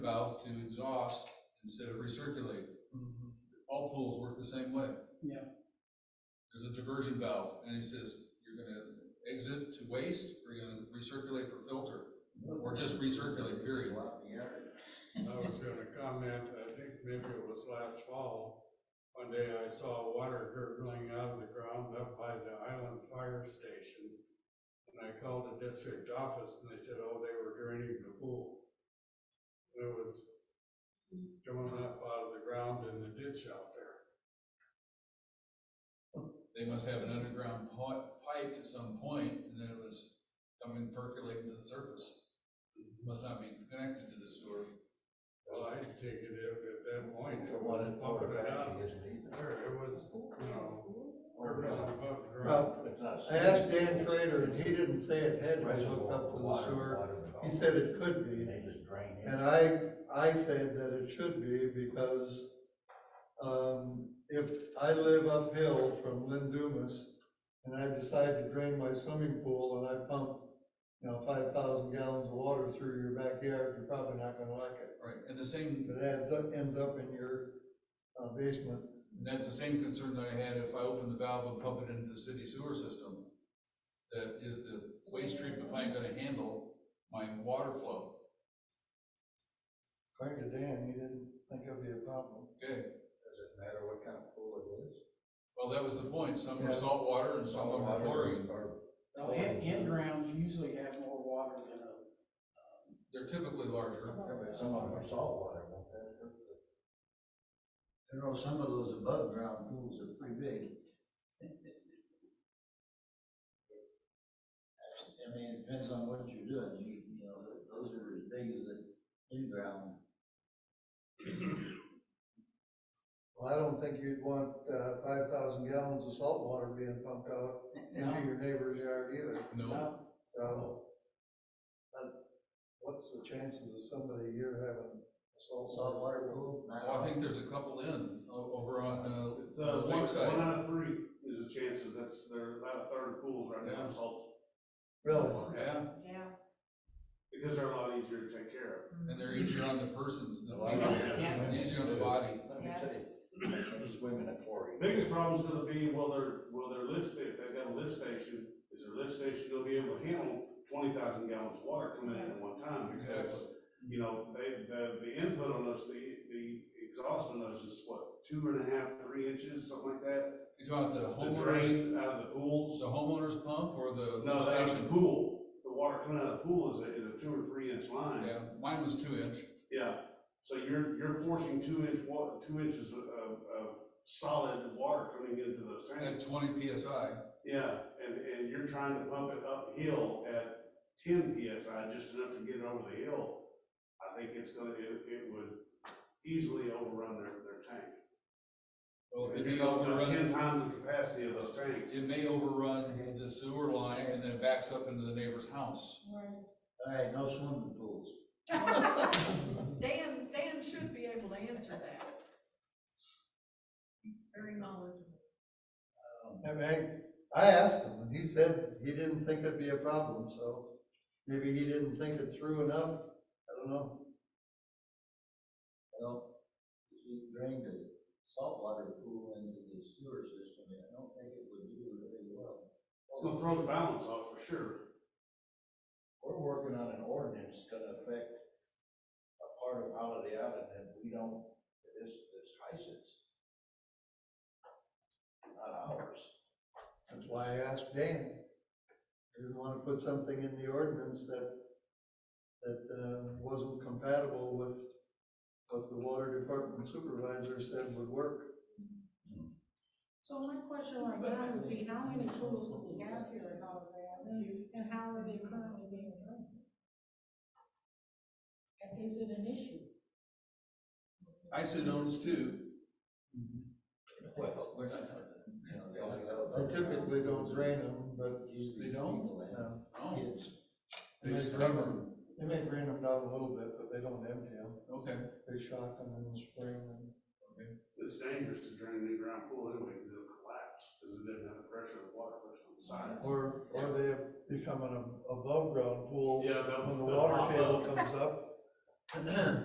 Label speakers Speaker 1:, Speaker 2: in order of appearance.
Speaker 1: out to exhaust instead of recirculate. All pools work the same way.
Speaker 2: Yeah.
Speaker 1: There's a diversion valve, and it says, you're gonna exit to waste, or you're gonna recirculate for filter, or just recirculate, period.
Speaker 3: I was gonna comment, I think maybe it was last fall, one day I saw water gurgling out of the ground up by the island fire station. And I called the district office and they said, oh, they were draining the pool. And It was coming up out of the ground in the ditch out there.
Speaker 1: They must have an underground pi- pipe to some point, and then it was coming percolating to the surface. Must not be connected to the sewer.
Speaker 3: Well, I'd take it if at that point
Speaker 4: The
Speaker 3: it
Speaker 4: one
Speaker 3: was
Speaker 4: in
Speaker 3: pumping
Speaker 4: Florida
Speaker 3: it out.
Speaker 4: actually isn't either.
Speaker 3: There, it was, you know,
Speaker 4: Or
Speaker 3: gurgling
Speaker 4: not.
Speaker 3: above the ground.
Speaker 4: Well, it's not
Speaker 5: I asked
Speaker 4: safe.
Speaker 5: Dan Trader, and he didn't say it had been hooked
Speaker 4: Reservoir,
Speaker 5: up to the
Speaker 4: water,
Speaker 5: sewer.
Speaker 4: water and all.
Speaker 5: He said it could
Speaker 4: And
Speaker 5: be,
Speaker 4: They just drain it.
Speaker 5: and I, I said that it should be because, um, if I live uphill from Lynn Dumas and I decide to drain my swimming pool and I pump, you know, five thousand gallons of water through your backyard, you're probably not gonna like it.
Speaker 1: Right, and the same,
Speaker 5: If it adds up, ends up in your uh, basement,
Speaker 1: and that's the same concern that I had if I opened the valve and pump it into the city sewer system. That is the waste treatment plant gonna handle my water flow?
Speaker 5: according to Dan, he didn't think it'd be a problem.
Speaker 1: Okay,
Speaker 4: Does it matter what kind of pool it is?
Speaker 1: well, that was the point, some
Speaker 5: Yeah.
Speaker 1: are salt water and some are
Speaker 4: Water
Speaker 1: chlorine.
Speaker 4: or-
Speaker 2: Now, in, in Oh, grounds usually have more water than a,
Speaker 1: They're typically larger.
Speaker 4: I mean, Some of them are salt water, won't that hurt the-
Speaker 6: You know, some of those above ground pools are pretty big. I mean, it depends on what you're doing, you, you know, th- those are as big as an in-ground.
Speaker 5: Well, I don't think you'd want, uh, five thousand gallons of salt water being pumped out into your neighbor's yard either,
Speaker 1: No,
Speaker 2: no,
Speaker 5: so. but What's the chances of somebody here having a salt water?
Speaker 6: Saltwater pool? not-
Speaker 1: Well, I think there's a couple in, o- over on,
Speaker 7: It's,
Speaker 1: uh,
Speaker 7: uh, one, one
Speaker 1: Lakeside.
Speaker 7: out of three is the chances, that's, they're about a third of pools right now,
Speaker 1: Yeah.
Speaker 7: salt.
Speaker 5: Really?
Speaker 1: Yeah,
Speaker 8: Yeah.
Speaker 7: Because they're a lot easier to take care
Speaker 1: and they're easier on the persons than
Speaker 4: Well, I don't have
Speaker 2: Yeah.
Speaker 4: swimming
Speaker 1: easier on the
Speaker 4: too.
Speaker 1: body.
Speaker 4: Let me tell you, I'm swimming at chlorine.
Speaker 7: of. Biggest problem's gonna be, will their, will their lift, if they've got a lift station, is their lift station gonna be able to handle twenty thousand gallons of water coming in at one time? Because, you know, they, the, the input on those, the, the exhaust on those is what, two and a half, three inches, something like that?
Speaker 1: You talking about the
Speaker 7: The
Speaker 1: homeowners,
Speaker 7: drain out of the pools.
Speaker 1: the homeowners pump or the
Speaker 7: No, that was the
Speaker 1: station?
Speaker 7: pool, the water coming out of the pool is a, is a two or three inch line.
Speaker 1: Yeah, mine was two inch.
Speaker 7: Yeah, so you're, you're forcing two inch wa, two inches of, of solid water coming into those
Speaker 1: at
Speaker 7: tanks.
Speaker 1: twenty PSI.
Speaker 7: Yeah, and, and you're trying to pump it uphill at ten PSI, just enough to get it over the hill. I think it's gonna, it, it would easily overrun their, their tank.
Speaker 1: Well, it
Speaker 7: If you
Speaker 1: may
Speaker 7: go about ten
Speaker 1: overrun,
Speaker 7: times the capacity of those tanks.
Speaker 1: it may overrun the sewer line and then it backs up into the neighbor's house.
Speaker 6: All right, no swimming pools.
Speaker 8: Dan, Dan should be able to answer that. He's very knowledgeable.
Speaker 5: Um, I mean, I asked him, and he said he didn't think it'd be a problem, so maybe he didn't think it through enough, I don't know.
Speaker 6: Well, if you drained the saltwater pool into the sewer system, I don't think it would do really well.
Speaker 7: It's gonna throw the balance off for sure.
Speaker 4: We're working on an ordinance that's gonna affect a part of Holiday Island that we don't, that is, that's Hyson's. Not ours.
Speaker 5: That's why I asked Dan. I didn't want to put something in the ordinance that, that uh, wasn't compatible with what the water department supervisor said would work.
Speaker 8: So my question right now would be, how many tools do we have here in Holiday Island, and how are they currently being run? And is it an issue?
Speaker 1: Ison owns two.
Speaker 7: Mm-hmm.
Speaker 4: Well, we're not, you know, the only
Speaker 5: I
Speaker 4: other.
Speaker 5: typically don't drain them, but,
Speaker 6: Usually
Speaker 1: They don't?
Speaker 6: people have
Speaker 5: no.
Speaker 1: Oh,
Speaker 6: Kids.
Speaker 1: they just cover them.
Speaker 5: They may drain them down a little bit, but they don't empty them.
Speaker 1: Okay,
Speaker 5: They shock them in the spring and
Speaker 7: It's dangerous to drain an in-ground pool anyway, because it'll collapse, because it doesn't have the pressure of water pressure on the sides.
Speaker 5: Or, or they have become an above-ground pool.
Speaker 7: Yeah, they'll-
Speaker 5: When the
Speaker 7: they'll
Speaker 5: water
Speaker 7: pop
Speaker 5: table
Speaker 7: up.
Speaker 5: comes up,